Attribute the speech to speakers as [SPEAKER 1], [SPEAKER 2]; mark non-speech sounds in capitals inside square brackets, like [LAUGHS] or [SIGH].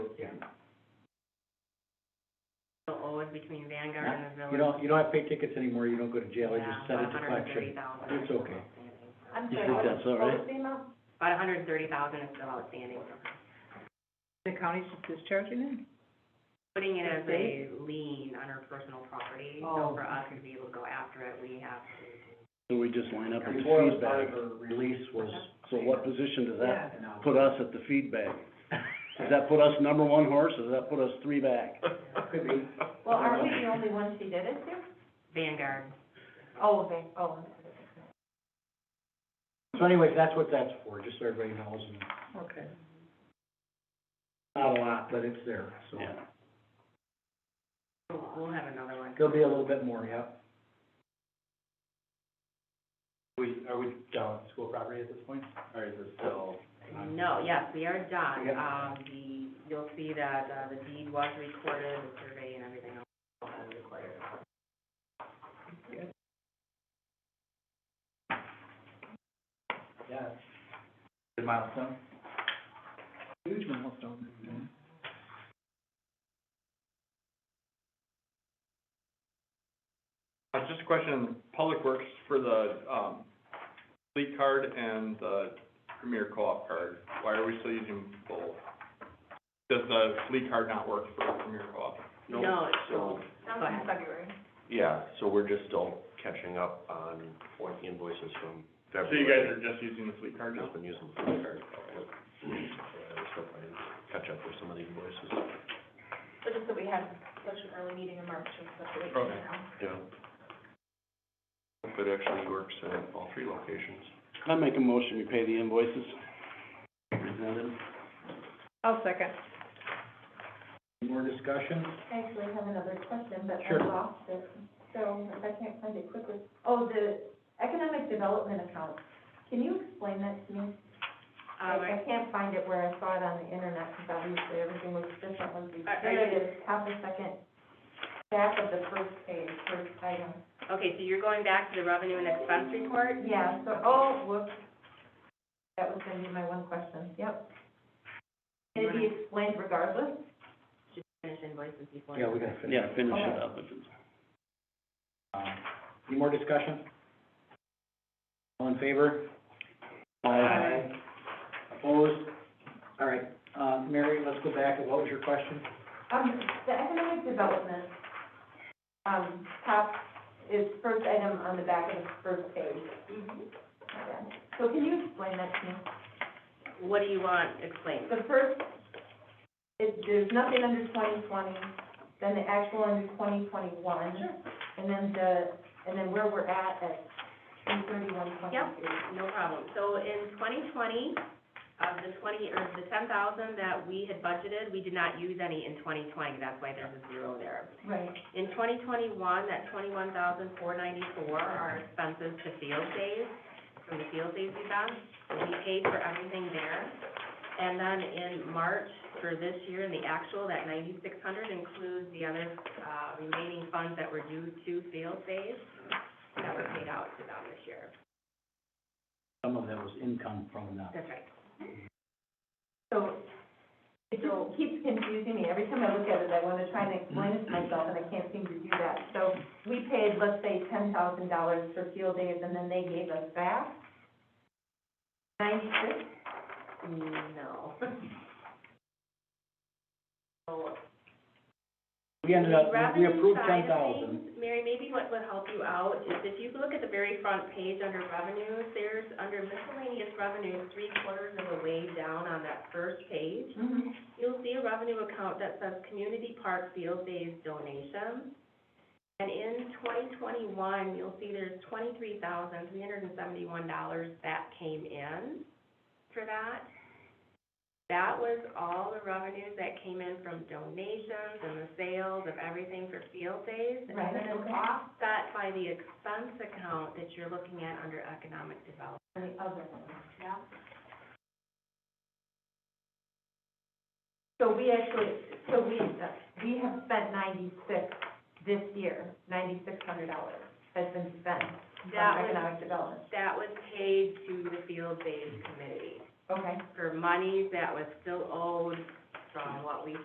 [SPEAKER 1] between Vanguard and the village.
[SPEAKER 2] You don't, you don't have to pay tickets anymore, you don't go to jail, you just send it to
[SPEAKER 1] About a hundred and thirty
[SPEAKER 2] collection.
[SPEAKER 1] thousand.
[SPEAKER 2] It's okay.
[SPEAKER 3] I'm
[SPEAKER 4] You
[SPEAKER 3] sorry,
[SPEAKER 4] think
[SPEAKER 3] what was,
[SPEAKER 4] that's all
[SPEAKER 3] what
[SPEAKER 4] right?
[SPEAKER 3] was the amount?
[SPEAKER 1] About a hundred and thirty thousand is still outstanding.
[SPEAKER 5] The county's discharging it?
[SPEAKER 1] Putting it as
[SPEAKER 5] Okay.
[SPEAKER 1] a lien on our personal property,
[SPEAKER 5] Oh,
[SPEAKER 1] so for us to be able to go after it, we have to.
[SPEAKER 4] So we just line up with
[SPEAKER 2] Before the
[SPEAKER 4] feedback.
[SPEAKER 2] time of release was.
[SPEAKER 4] So what position does that
[SPEAKER 5] Yeah.
[SPEAKER 4] put us at the feedback? Does that put us number one horse, or does that put us three back?
[SPEAKER 2] Could be.
[SPEAKER 3] Well, aren't we the only ones she did it to?
[SPEAKER 1] Vanguard,
[SPEAKER 3] Oh, they, oh.
[SPEAKER 2] So anyways, that's what that's for, just so everybody knows, and
[SPEAKER 5] Okay.
[SPEAKER 2] not a lot, [LAUGHS] but it's there, so.
[SPEAKER 4] Yeah.
[SPEAKER 1] we'll, we'll have another one.
[SPEAKER 2] There'll be a little bit more, yeah.
[SPEAKER 6] We, are we down at school property at this point, or is it still?
[SPEAKER 1] No, yes, we are done.
[SPEAKER 2] Yeah.
[SPEAKER 1] Um, the, you'll see that, uh, the deed was recorded, the survey and everything else was recorded.
[SPEAKER 6] Yeah. Good milestone.
[SPEAKER 5] Huge milestone.
[SPEAKER 7] Uh, just a question, Public Works for the, um, fleet card and the Premier Co-op card, why are we still using both? Does the fleet card not work for Premier Co-op?
[SPEAKER 4] No,
[SPEAKER 1] No, it's
[SPEAKER 4] so-
[SPEAKER 1] Go ahead.
[SPEAKER 3] February.
[SPEAKER 4] Yeah, so we're just still catching up on what invoices from
[SPEAKER 7] So you guys are just using the fleet card now?
[SPEAKER 4] been using the credit card. Catch up with some of the invoices.
[SPEAKER 3] But just that we had such an early meeting in March, just such a late
[SPEAKER 7] Okay.
[SPEAKER 3] meeting now.
[SPEAKER 4] Yeah. If it actually works at all three locations. I make a motion, we pay the invoices. Presented.
[SPEAKER 5] I'll second.
[SPEAKER 2] More discussion?
[SPEAKER 3] I actually have another question, but I
[SPEAKER 2] Sure.
[SPEAKER 3] lost it, so if I can't find it quickly. Oh, the economic development account, can you explain that to me?
[SPEAKER 1] Um,
[SPEAKER 3] I, I can't find it where I saw it on the internet, because obviously everything was different once we
[SPEAKER 1] Are- are
[SPEAKER 3] did
[SPEAKER 1] you-
[SPEAKER 3] it, it's half a second back of the first page, first item.
[SPEAKER 1] Okay, so you're going back to the revenue and expense report?
[SPEAKER 3] Yeah, so, oh, whoops, that was gonna be my one question, yep. Can it be explained regardless?
[SPEAKER 1] Should finish invoices before.
[SPEAKER 2] Yeah, we gotta finish.
[SPEAKER 4] Yeah, finish it up if it's.
[SPEAKER 2] Um, Any more discussion? All in favor?
[SPEAKER 1] Aye.
[SPEAKER 2] Opposed? All right, uh, Mary, let's go back, what was your question?
[SPEAKER 3] Um, the economic development, um, top is first item on the back of the first page.
[SPEAKER 1] Mm-hmm.
[SPEAKER 3] Okay. So can you explain that to me?
[SPEAKER 1] What do you want explained?
[SPEAKER 3] The first, is there's nothing under twenty twenty, then the actual under twenty twenty-one. And then the, and then where we're at at three thirty-one twenty-two.
[SPEAKER 1] No problem. So in twenty twenty, of the twenty, or the ten thousand that we had budgeted, we did not use any in twenty twenty, that's why there's a zero there.
[SPEAKER 3] Right.
[SPEAKER 1] In twenty twenty-one, that twenty-one thousand four ninety-four are expenses to field days, from the field days we done. We paid for everything there. And then in March for this year, in the actual, that ninety-six hundred includes the other, uh, remaining funds that were due to field days that were paid out to them this year.
[SPEAKER 2] Some of that was income from the,
[SPEAKER 1] That's right.
[SPEAKER 3] So it just keeps confusing me. Every time I look at it, I want to try and explain it to myself, and I can't seem to do that. So we paid, let's say, ten thousand dollars for field days, and then they gave us back ninety-six?
[SPEAKER 1] No. [LAUGHS] So,
[SPEAKER 2] we ended up, we
[SPEAKER 1] revenue
[SPEAKER 2] approved ten
[SPEAKER 1] side of
[SPEAKER 2] thousand.
[SPEAKER 1] things, Mary, maybe what would help you out is if you look at the very front page under revenues, there's, under miscellaneous revenues, three quarters of the way down on that first page,
[SPEAKER 3] Mm-hmm.
[SPEAKER 1] you'll see a revenue account that says Community Park Field Days Donations. And in twenty twenty-one, you'll see there's twenty-three thousand, three hundred and seventy-one dollars that came in for that. That was all the revenues that came in from donations and the sales of everything for field days. And
[SPEAKER 3] Right,
[SPEAKER 1] then it's
[SPEAKER 3] okay.
[SPEAKER 1] offset by the expense account that you're looking at under economic development.
[SPEAKER 3] And the other one. Yeah. So we actually, so we, we have spent ninety-six this year, ninety-six hundred dollars has been spent
[SPEAKER 1] That
[SPEAKER 3] on
[SPEAKER 1] was,
[SPEAKER 3] economic development.
[SPEAKER 1] that was paid to the field days committee.
[SPEAKER 3] Okay.
[SPEAKER 1] for money that was still owed from what we